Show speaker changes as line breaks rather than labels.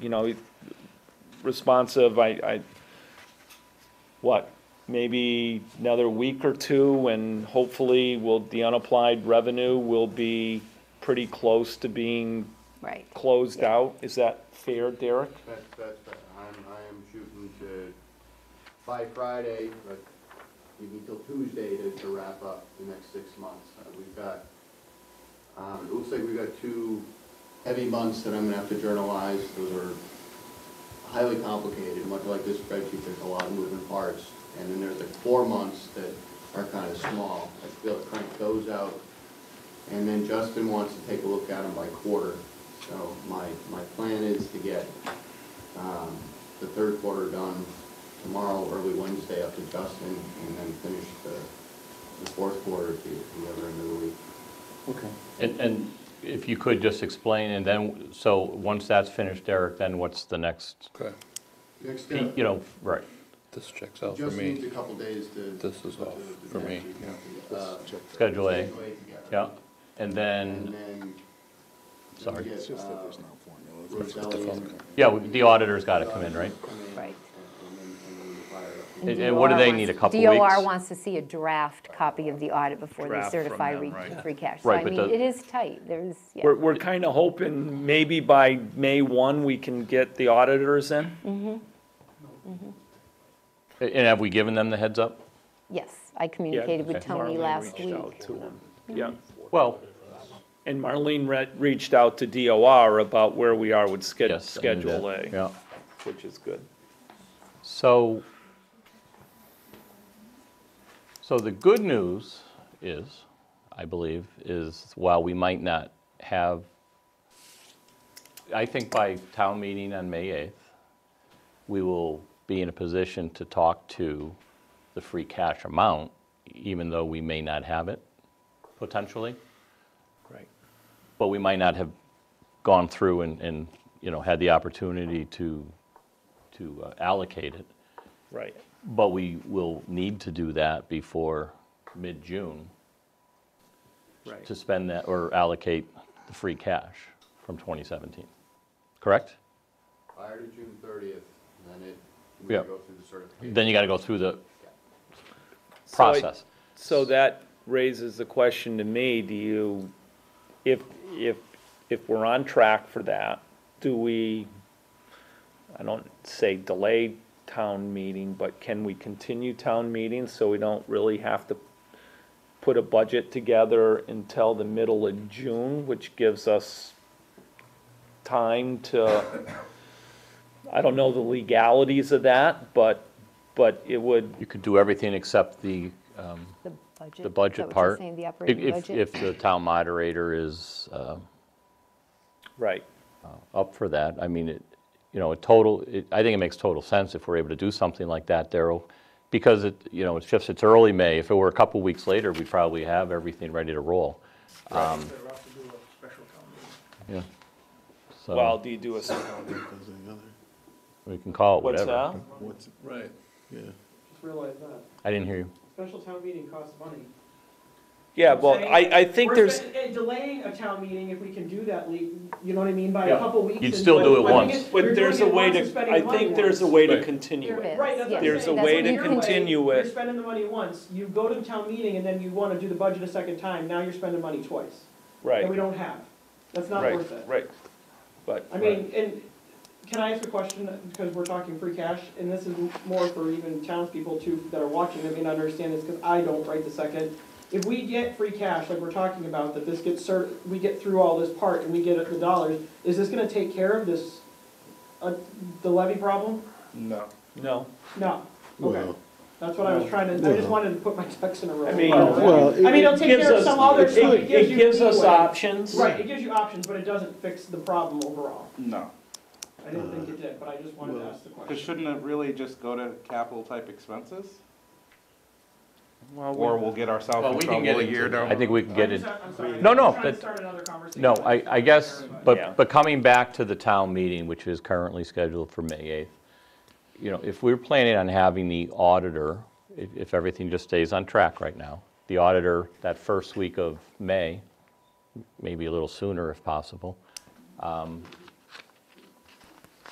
you know, responsive, I, I, what, maybe another week or two, and hopefully will, the unapplied revenue will be pretty close to being
right.
closed out. Is that fair, Derek?
That's, that's, I'm, I am shooting to, by Friday, but we need till Tuesday to, to wrap up the next six months. Uh, We've got, um, it looks like we've got two heavy months that I'm gonna have to journalize. Those are highly complicated, much like this spreadsheet, there's a lot of moving parts. And then there's like four months that are kind of small. I feel like crank those out. And then Justin wants to take a look at them by quarter. So my, my plan is to get, um, the third quarter done tomorrow, early Wednesday up to Justin, and then finish the, the fourth quarter to the other end of the week.
Okay.
And, and if you could just explain, and then, so once that's finished, Derek, then what's the next,
Okay,
Next step,
you know, right,
this checks out for
just needs a
me.
couple days to.
This is off for me, yeah.
Uh,
Schedule A,
schedule together.
yeah, and
And
then,
then.
sorry.
we get,
It's just that
uh,
there's no formula.
Roselli's-
yeah, we- the auditor's got to come in, right?
Come in,
Right.
And and then, and then fire it up.
And- and what do
DOR
they
wants-
need, a couple
DOR
weeks?
wants to see a draft copy of the audit before they
Draft from
certify
them,
re-
right.
free cash.
Right, but
So I mean,
the-
it is tight, there's, yeah,
We're, we're kind of hoping maybe by May 1, we can get the auditors in?
And have we given them the heads up?
yes, I communicated with
okay.
Tony
Marlene
last
reached out
week.
to him. Yeah,
Well,
and Marlene re- reached out to DOR about where we are with sched-
yes. I knew
Schedule
that,
A,
Yeah,
which is good.
so, so the good news is, I believe, is while we might not have, I think by town meeting on May 8th, we will be in a position to talk to the free cash amount, even though we may not have it, potentially.
Right.
But we might not have gone through and, and, you know, had the opportunity to, to uh, allocate it.
Right.
But we will need to do that before mid-June
Right.
to spend that or allocate the free cash from 2017, correct?
Prior to June thirtieth, then it, we
Yeah.
go through the certification.
Then you got to go through the process.
So that raises the question to me, do you, if, if, if we're on track for that, do we, I don't say delay town meeting, but can we continue town meeting so we don't really have to put a budget together until the middle of June, which gives us time to, I don't know the legalities of that, but, but it would,
You could do everything except the, um,
The budget. Is
the
that
budget
what you're
part.
saying, the
if-
operating
if-
budget?
If the town moderator is uh,
right.
up for that, I mean, it, you know, a total, it- I think it makes total sense if we're able to do something like that, Daryl, because it, you know, it's just, it's early May. If it were a couple weeks later, we'd probably have everything ready to roll. Um,
Better off to do a special town meeting.
Yeah.
Well,
So
do you do a,
we can call it
what's
whatever.
that?
What's,
Right.
yeah.
Just realize that.
I didn't hear you.
Special town meeting costs money.
Yeah, well,
Saying-
I, I think
We're
there's,
spe- eh, Delaying a town meeting, if we can do that, le- you know what I mean, by
Yeah.
a couple weeks.
You'd
and
still
like-
do it
I think
once.
it's- you're
but there's a
doing it
way
once and
to,
spending
I
the money
think
once.
there's a way to
Right.
continue it.
is,
Right, that's what I'm
yes,
There's a
saying.
way
That's
to
your
continue
You're
it.
spending the money once, you go to the town meeting and then you want to do the budget a second time, now you're spending money twice. That we
Right,
don't have. That's not worth it.
right, right. But,
I mean, and can I ask a question, because we're talking free cash, and this is more for even townspeople too, that are watching, that may not understand this, because I don't right the second. If we get free cash, like we're talking about, that this gets cert, we get through all this part and we get the dollars, is this gonna take care of this, uh, the levy problem?
No.
no,
No, okay,
Well,
that's what I was trying to, I just wanted to put my ducks in a row.
I mean-
Well,
I mean, it'll
it
take
gives
care of
us,
some other stuff,
it,
it gives
it
you
gives us
leeway.
options.
Right, it gives you options, but it doesn't fix the problem overall.
No,
I didn't think it did, but I just wanted to ask the
but
question.
shouldn't it really just go to capital type expenses?
Well, we-
Or we'll get ourselves
Well,
in
we can
trouble a
get
year
into-
down.
I think we can get
I'm
it.
sorry- I'm sorry.
No,
I'm
no,
trying to
that-
start another conversation.
No, I, I guess,
Yeah.
but, but coming back to the town meeting, which is currently scheduled for May 8th, you know, if we're planning on having the auditor, if, if everything just stays on track right now, the auditor that first week of May, maybe a little sooner if possible, um,